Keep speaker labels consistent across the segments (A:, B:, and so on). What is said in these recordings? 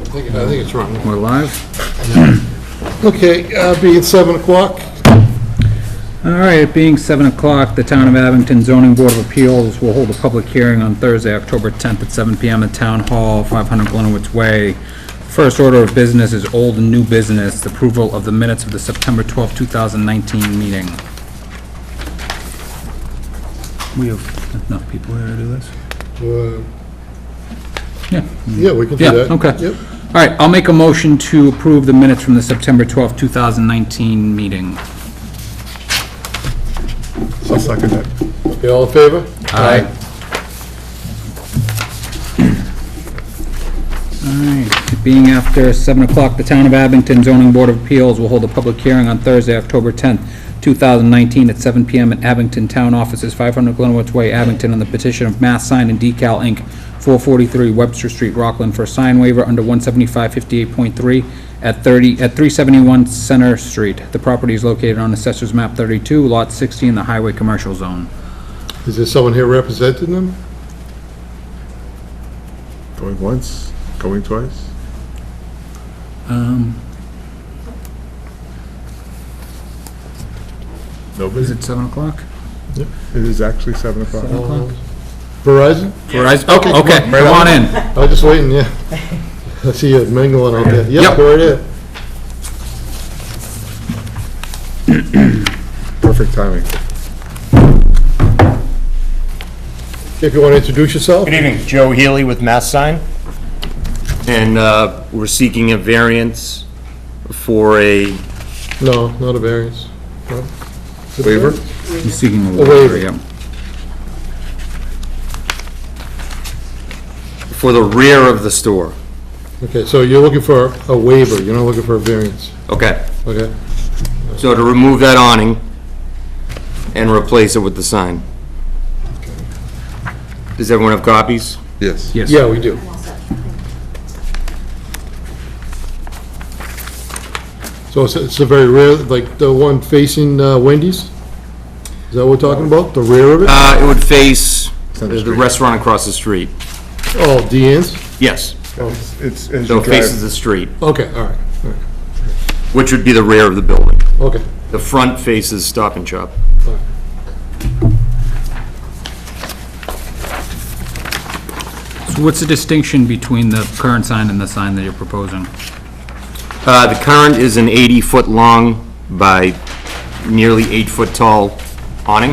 A: I think it's wrong.
B: We're live.
A: Okay, uh, being 7 o'clock,
B: All right, it being 7 o'clock, the Town of Abington Zoning Board of Appeals will hold a public hearing on Thursday, October 10th at 7 PM at Town Hall, 500 Glenwood's Way. First order of business is old and new business, the approval of the minutes of the September 12th, 2019 meeting. We have enough people here to do this?
A: uh,
B: Yeah.
A: yeah, we can do
B: Yeah,
A: that.
B: okay.
A: Yep.
B: All right, I'll make a motion to approve the minutes from the September 12th, 2019 meeting.
A: I'll second that. Okay, all in favor?
B: Aye. All right, it being after 7 o'clock, the Town of Abington Zoning Board of Appeals will hold a public hearing on Thursday, October 10th, 2019, at 7 PM at Abington Town Offices, 500 Glenwood Way, Abington, on the petition of Mass Sign and Decal, Inc., 443 Webster Street, Rockland, for a sign waiver under 17558.3 at 30, at 371 Center Street. The property is located on Assessor's Map 32, Lot 60, in the Highway Commercial Zone.
A: Is there someone here representing them?
C: Going once, going twice?
B: Um, Is
C: Nobody?
B: it 7 o'clock?
C: It is actually 7 o'clock.
A: Verizon?
B: Verizon, okay, okay, come on in.
A: I was just waiting, yeah. I see you mingling out there. Yep,
B: Yep.
A: we're there.
C: Perfect timing.
A: If you want to introduce yourself?
D: Good evening, Joe Healy with Mass Sign. And uh, we're seeking a variance for a,
A: No, not a variance. No.
C: Waiver?
B: He's seeking a
A: waiver.
B: waiver, yeah.
D: for the rear of the store.
A: Okay, so you're looking for a waiver, you're not looking for a variance,
D: Okay,
A: okay?
D: so to remove that awning and replace it with the sign. Does everyone have copies?
C: Yes.
B: Yes.
A: Yeah, we do. So it's, it's the very rear, like the one facing uh, Wendy's? Is that what we're talking about? The rear of it?
D: Uh, It would face
C: Center
D: the
C: Street.
D: restaurant across the street.
A: Oh, Deanne's?
D: Yes,
C: It's, as
D: so
C: you
D: it faces
C: drive,
D: the street,
A: Okay, all right, all right,
D: which would be the rear of the building.
A: okay.
D: The front faces Stop and Shop.
A: all right.
B: So what's the distinction between the current sign and the sign that you're proposing?
D: Uh, The current is an 80-foot-long by nearly 8-foot-tall awning,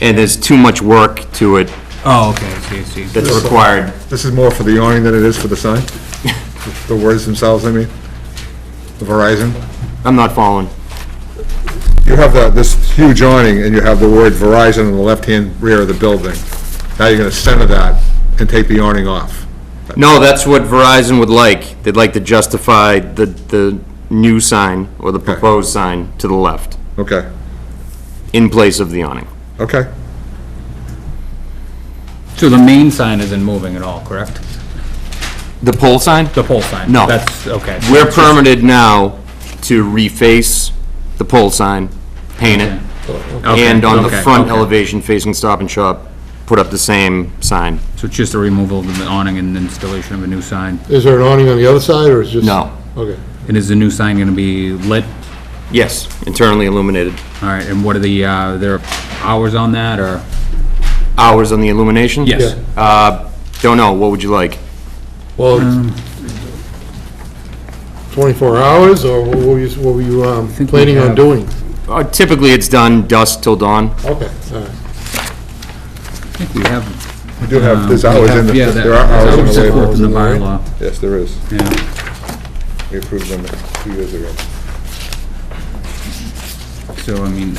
D: and there's too much work to it
B: Oh, okay, I see, I see.
D: that's required.
C: this is more for the awning than it is for the sign? The words themselves, I mean? The Verizon?
D: I'm not following.
C: You have the, this huge awning, and you have the word Verizon on the left-hand rear of the building. Now you're gonna center that and take the awning off.
D: No, that's what Verizon would like. They'd like to justify the, the new sign or the proposed sign to the left
C: Okay,
D: in place of the awning.
C: okay.
B: So the main sign isn't moving at all, correct?
D: The pole sign?
B: The pole sign?
D: No.
B: That's, okay.
D: We're permitted now to reface the pole sign, paint it,
B: Okay,
D: and on the
B: okay,
D: front
B: okay.
D: elevation facing Stop and Shop, put up the same sign.
B: So it's just the removal of the awning and installation of a new sign?
A: Is there an awning on the other side, or is just?
D: No.
A: Okay.
B: And is the new sign gonna be lit?
D: Yes, internally illuminated.
B: All right, and what are the, uh, there are hours on that, or?
D: Hours on the illumination?
B: Yes.
A: Yeah.
D: Uh, don't know, what would you like?
A: Well,
B: Um,
A: it's 24 hours, or what were you, what were you um,
B: we
A: planning on
B: have-
A: doing?
D: Uh, Typically, it's done dusk till dawn.
A: Okay, all right.
B: I think we have.
C: You do have, there's
B: um, we
C: hours
B: have-
C: in, the-
B: yeah, that-
C: there are hours in
B: that's
C: the
B: set forth
C: waiver.
B: in the
A: Hours in the
B: bylaw,
C: Yes, there is.
B: yeah.
C: We approved them two years ago.
B: So, I mean,